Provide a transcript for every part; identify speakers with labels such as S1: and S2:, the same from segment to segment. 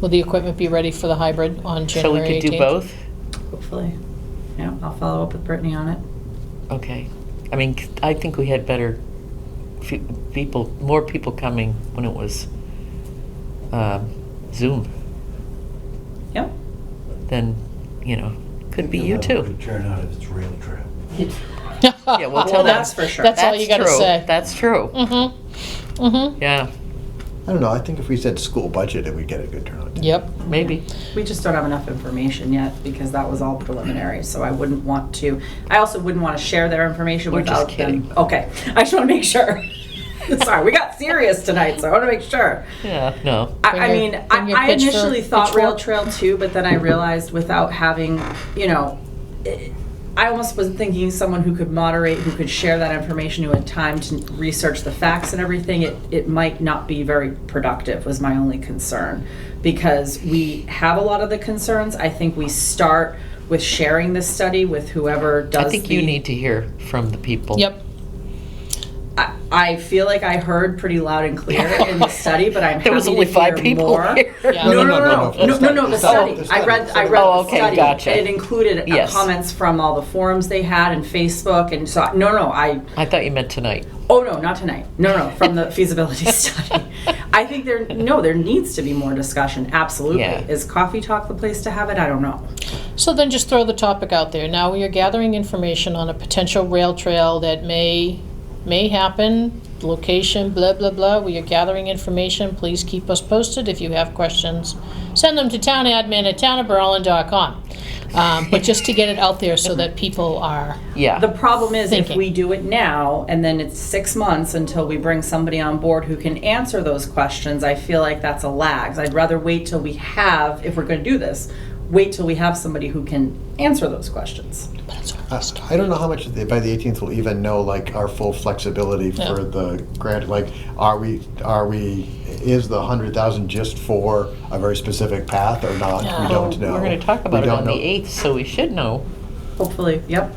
S1: Will the equipment be ready for the hybrid on
S2: So we
S1: January 18th?
S2: could do both?
S3: hopefully. Yeah, I'll follow up with Brittany on it.
S2: Okay. I mean, c- I think we had better fe- people, more people coming when it was um, Zoom
S3: Yep.
S2: than, you know, could be you too.
S4: Turn out if it's rail trail.
S2: Yeah, we'll
S3: Well,
S2: tell them.
S3: that's for sure.
S1: That's all you gotta
S2: true.
S1: say.
S2: That's true.
S1: Mm-hmm, mm-hmm,
S2: Yeah,
S4: I don't know, I think if we said school budget, it would get a good turnout.
S1: yep.
S2: maybe.
S3: We just don't have enough information yet because that was all preliminary, so I wouldn't want to, I also wouldn't want to share their information
S2: We're just
S3: without them.
S2: kidding.
S3: Okay, I just want to make sure. Sorry, we got serious tonight, so I want to make sure.
S2: Yeah, no.
S3: I,
S1: Bring
S3: I
S1: your-
S3: mean,
S1: bring
S3: I,
S1: your
S3: I
S1: pitchfork-
S3: initially thought Rail
S1: pitchfork.
S3: Trail too, but then I realized without having, you know, eh, I almost was thinking someone who could moderate, who could share that information, who had time to research the facts and everything, it, it might not be very productive, was my only concern. Because we have a lot of the concerns. I think we start with sharing this study with whoever does
S2: I think you
S3: the-
S2: need to hear from the people.
S1: Yep.
S3: I, I feel like I heard pretty loud and clear in the study, but I'm
S2: There was
S3: happy
S2: only
S3: to
S2: five
S3: hear
S2: people
S3: more.
S2: here.
S1: Yeah.
S3: No, no, no, no,
S4: no, no,
S3: no,
S4: no,
S3: no, no,
S4: the
S3: the
S4: study.
S3: study.
S4: Oh, the
S3: I read, I
S4: study.
S3: read
S2: Oh,
S3: the
S2: okay,
S3: study.
S2: gotcha.
S3: And it included uh,
S2: Yes.
S3: comments from all the forums they had and Facebook and so, no, no, I,
S2: I thought you meant tonight.
S3: oh, no, not tonight. No, no, from the feasibility study. I think there, no, there needs to be more discussion, absolutely.
S2: Yeah.
S3: Is coffee talk the place to have it? I don't know.
S1: So then just throw the topic out there. Now we are gathering information on a potential rail trail that may, may happen, location, blah, blah, blah. We are gathering information. Please keep us posted if you have questions. Send them to townadmin@townofberlin.com. Um, But just to get it out there so that people are,
S2: Yeah.
S3: The problem is if
S1: Thinking.
S3: we do it now and then it's six months until we bring somebody on board who can answer those questions, I feel like that's a lag. I'd rather wait till we have, if we're gonna do this, wait till we have somebody who can answer those questions.
S1: but it's our
S4: I
S1: list.
S4: I don't know how much the- by the 18th we'll even know like our full flexibility
S1: Yeah.
S4: for the grant. Like, are we, are we, is the 100,000 just for a very specific path or not?
S1: Yeah.
S4: We don't know.
S2: We're going to talk
S4: We
S2: about it
S4: don't
S2: on the
S4: know.
S2: 8th, so we should know.
S3: Hopefully, yep.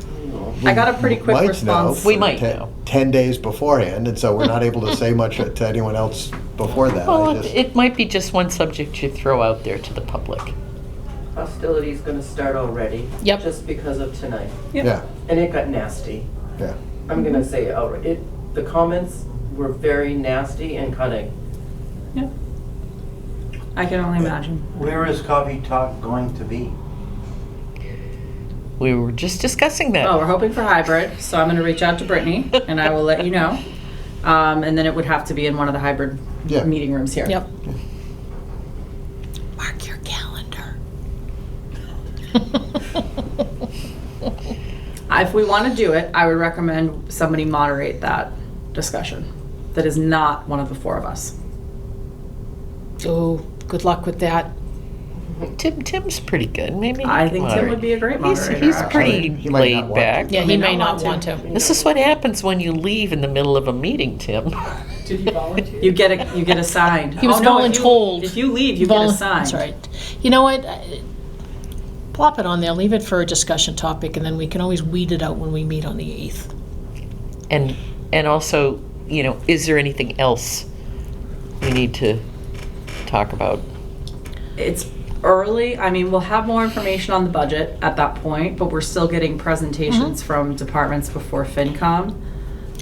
S3: I got a pretty quick
S4: might know
S3: response.
S2: We might
S4: ten-
S2: know.
S4: 10 days beforehand, and so we're not able to say much to anyone else before that. I
S2: Well, it-
S4: just-
S2: it might be just one subject you throw out there to the public.
S5: Hostility's gonna start already.
S1: Yep.
S5: Just because of tonight.
S3: Yep.
S4: Yeah,
S5: And it got nasty.
S4: yeah.
S5: I'm gonna say, it outright. it, the comments were very nasty and cutting.
S3: Yep. I can only imagine.
S6: Where is Coffee Talk going to be?
S2: We were just discussing that.
S3: Oh, we're hoping for hybrid, so I'm gonna reach out to Brittany and I will let you know. Um, and then it would have to be in one of the hybrid
S4: Yeah.
S3: meeting rooms here.
S1: Yep.
S2: Mark your calendar.
S3: If we want to do it, I would recommend somebody moderate that discussion that is not one of the four of us.
S1: Oh, good luck with that.
S2: Tim, Tim's pretty good. Maybe he
S3: I
S2: can
S3: think Tim
S2: moderate.
S3: would be a great
S2: He's,
S3: moderator.
S2: he's
S3: actually.
S2: pretty
S4: He might
S2: laid
S4: not want to.
S2: back.
S1: Yeah, he
S3: may
S1: may not want
S3: not want
S1: to.
S2: This is what happens when you leave in the middle of a meeting, Tim.
S5: Did he volunteer?
S3: You get a you get assigned.
S1: He was
S3: Oh, no, if you-
S1: voluntold.
S3: If you leave, you
S1: Vol-
S3: get assigned.
S1: That's right. You know what? I- Plop it on there, leave it for a discussion topic, and then we can always weed it out when we meet on the 8th.
S2: And and also, you know, is there anything else we need to talk about?
S3: It's early. I mean, we'll have more information on the budget at that point, but we're still getting presentations from departments before FinCom.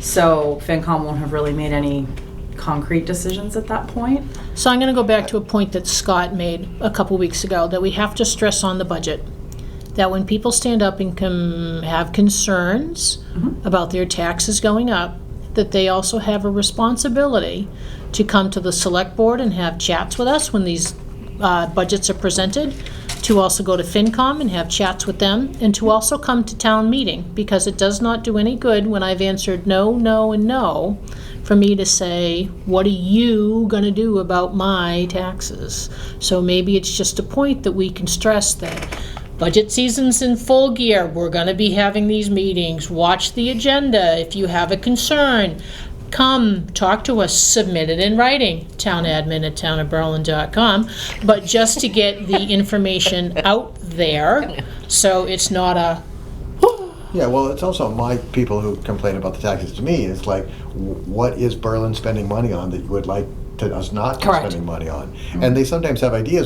S3: So FinCom won't have really made any concrete decisions at that point.
S1: So I'm going to go back to a point that Scott made a couple weeks ago, that we have to stress on the budget, that when people stand up and com- have concerns about their taxes going up, that they also have a responsibility to come to the select board and have chats with us when these uh, budgets are presented, to also go to FinCom and have chats with them, and to also come to town meeting, because it does not do any good when I've answered no, no, and no, for me to say, what are you gonna do about my taxes? So maybe it's just a point that we can stress that budget season's in full gear, we're gonna be having these meetings, watch the agenda if you have a concern. Come, talk to us, submit it in writing, townadmin@townofberlin.com, but just to get the information out there, so it's not a,
S4: Yeah, well, it's also my people who complain about the taxes to me. It's like, wh- what is Berlin spending money on that you would like to us not to be
S1: Correct.
S4: spending money on? And they sometimes have ideas.